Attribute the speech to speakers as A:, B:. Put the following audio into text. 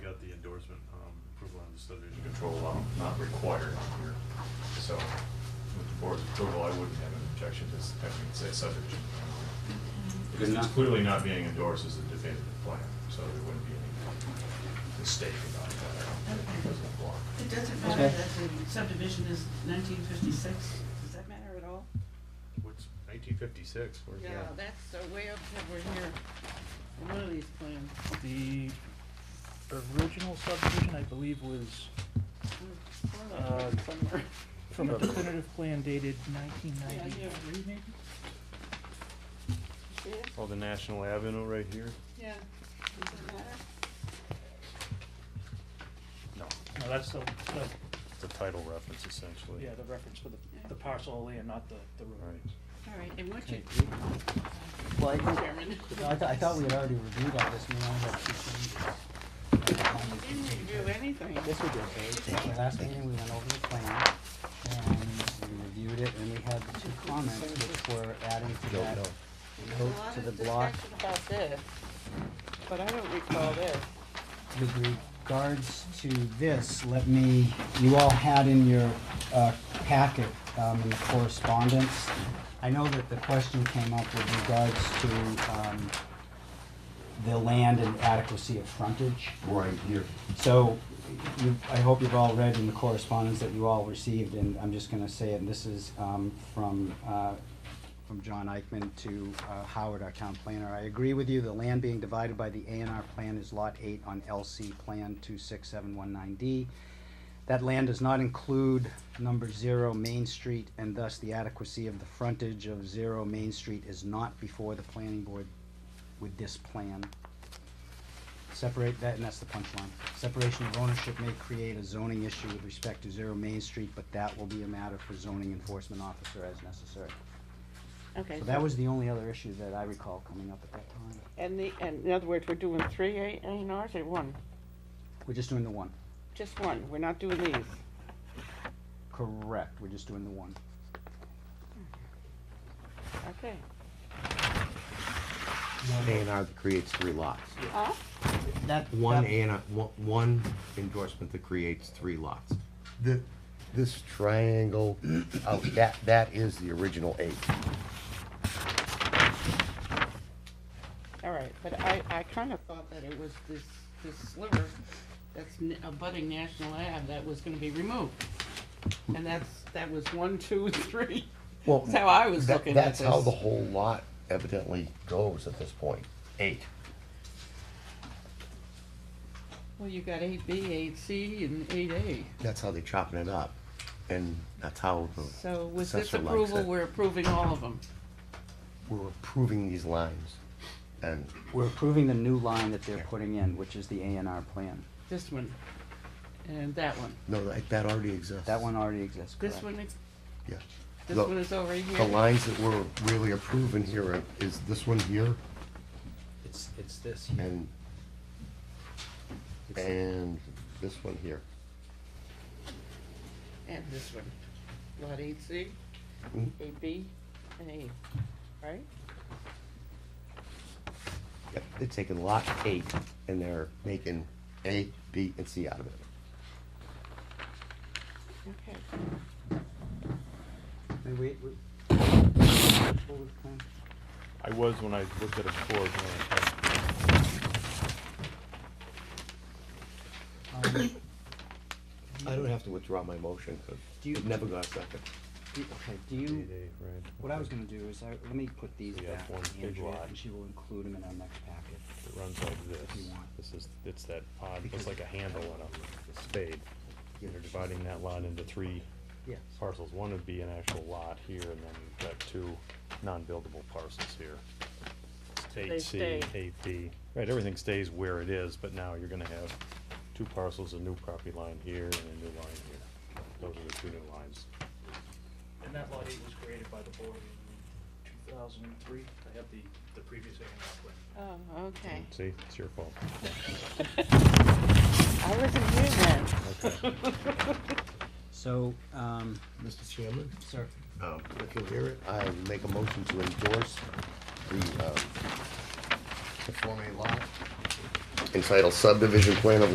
A: um, control, um, not required on here. So with the board's approval, I wouldn't have an objection to s- having it say subject. to plan.
B: Good
A: It's
B: enough.
A: clearly not being endorsed as a definitive plan, so there wouldn't be any mistake about that. I don't think it doesn't apply.
C: It doesn't matter
B: Okay.
C: that the subdivision is nineteen fifty-six, does that matter at all?
D: What's nineteen fifty-six, where's
C: Yeah,
D: that?
C: that's uh, way up over here, in one of these plans.
E: The original subdivision, I believe, was
C: One of them
E: Uh,
C: somewhere.
E: from a definitive plan dated nineteen
C: Yeah, here.
E: ninety-three, maybe?
C: See it?
D: Oh, the National Avenue right here?
C: Yeah, does it matter?
D: No.
E: No, that's the, the,
D: It's a title reference essentially.
E: yeah, the reference for the,
C: Yeah.
E: the parcel only and not the, the road.
D: Right.
C: All right, and what you,
B: Okay. Well, I think-
C: Chairman.
B: No, I thought, I thought we had already reviewed all this, and we only got two
C: You
B: changes.
C: didn't review anything.
B: Yes, we did, At the last meeting, we went over the plan, and we reviewed it, and we had the two comments, which were adding to that note
C: There's a lot
B: to the
C: of
B: block
C: discussion about this, but I don't recall this.
B: With regards to this, let me, you all had in your uh, packet um, in the correspondence, I know that the question came up with regards to um, the land and adequacy of frontage.
F: Right here.
B: So you, I hope you've all read in the correspondence that you all received, and I'm just gonna say it, and this is, um, from, uh, from John Eichman to, uh, Howard, our town planner. I agree with you, the land being divided by the A and R plan is lot eight on LC Plan two six seven one nine D. That land does not include number zero Main Street, and thus the adequacy of the frontage of zero Main Street is not before the planning board with this plan. Separate that, and that's the punchline. Separation of ownership may create a zoning issue with respect to Zero Main Street, but that will be a matter for zoning enforcement officer as necessary.
C: Okay.
B: So that was the only other issue that I recall coming up at that time.
C: And the, and in other words, we're doing three A A and Rs or one?
B: We're just doing the one.
C: Just one, we're not doing these.
B: Correct, we're just doing the one.
C: Okay.
F: One A and R that creates three lots.
C: Huh?
B: That.
F: One
B: that-
F: A and R, one- one endorsement that creates three lots. The, this triangle, oh, that, that is the original eight.
C: All right, but I, I kind of thought that it was this, this sliver that's n- abutting National Ave that was gonna be removed. And that's, that was one, two, three.
F: Well,
C: That's how I was
F: that-
C: looking at
F: That's how
C: this.
F: the whole lot evidently goes at this point, eight.
C: Well, you got eight B, eight C, and eight A.
F: That's how they're chopping it up, and that's how the
C: So with this
F: assessor Oh, likes
C: approval,
F: it.
C: we're approving all of them.
F: We're approving these lines, and
B: We're approving the new line that they're putting in, which is the A and R plan.
C: This one and that one.
F: no, that, that already exists.
B: That one already exists, correct?
C: This one, is-
F: Yeah.
C: this
F: The-
C: one is over
F: The
C: here.
F: lines that we're really approving here are- is this one here
B: It's, it's this here.
F: and,
B: It's-
F: and this one here.
C: And this one. Lot eight C,
F: Mm.
C: eight B, and eight, right?
F: Yep, They're taking lot eight and they're making A, B, and C out of it.
C: Okay.
B: May we- we- forward plan?
D: I was when I looked at it before. when I-
B: Um,
F: I don't have to withdraw my motion because
B: Do you-
F: it never got second.
B: do- Okay, do you?
D: Eight, eight, right.
B: What I was gonna do is, I, let me put these
D: So you have
B: back
D: one
B: on
D: big
B: Andrea,
D: lot.
B: and she will include them in our next packet.
D: It runs like this.
B: want.
D: This is, it's that odd, it's like a handle on a spade. They're dividing that lot into three
B: Yes.
D: parcels. One would be an actual lot here, and then you've got two non-buildable parcels here.
C: They
D: Eight C,
C: stay.
D: eight B. Right, everything stays where it is, but now you're gonna have two parcels, a new property line here and a new line here. Those are the two new lines.
E: And that lot eight was created by the board in two thousand and three. I have the, the previous A and R plan.
C: Oh, okay.
D: See, it's your fault.
C: I wasn't here
D: Okay.
C: then.
B: So, um,
F: Mr. Chairman?
B: sir,
F: Um, If you'll hear it, I make a motion to endorse the, uh, the Form A lot entitled subdivision plan of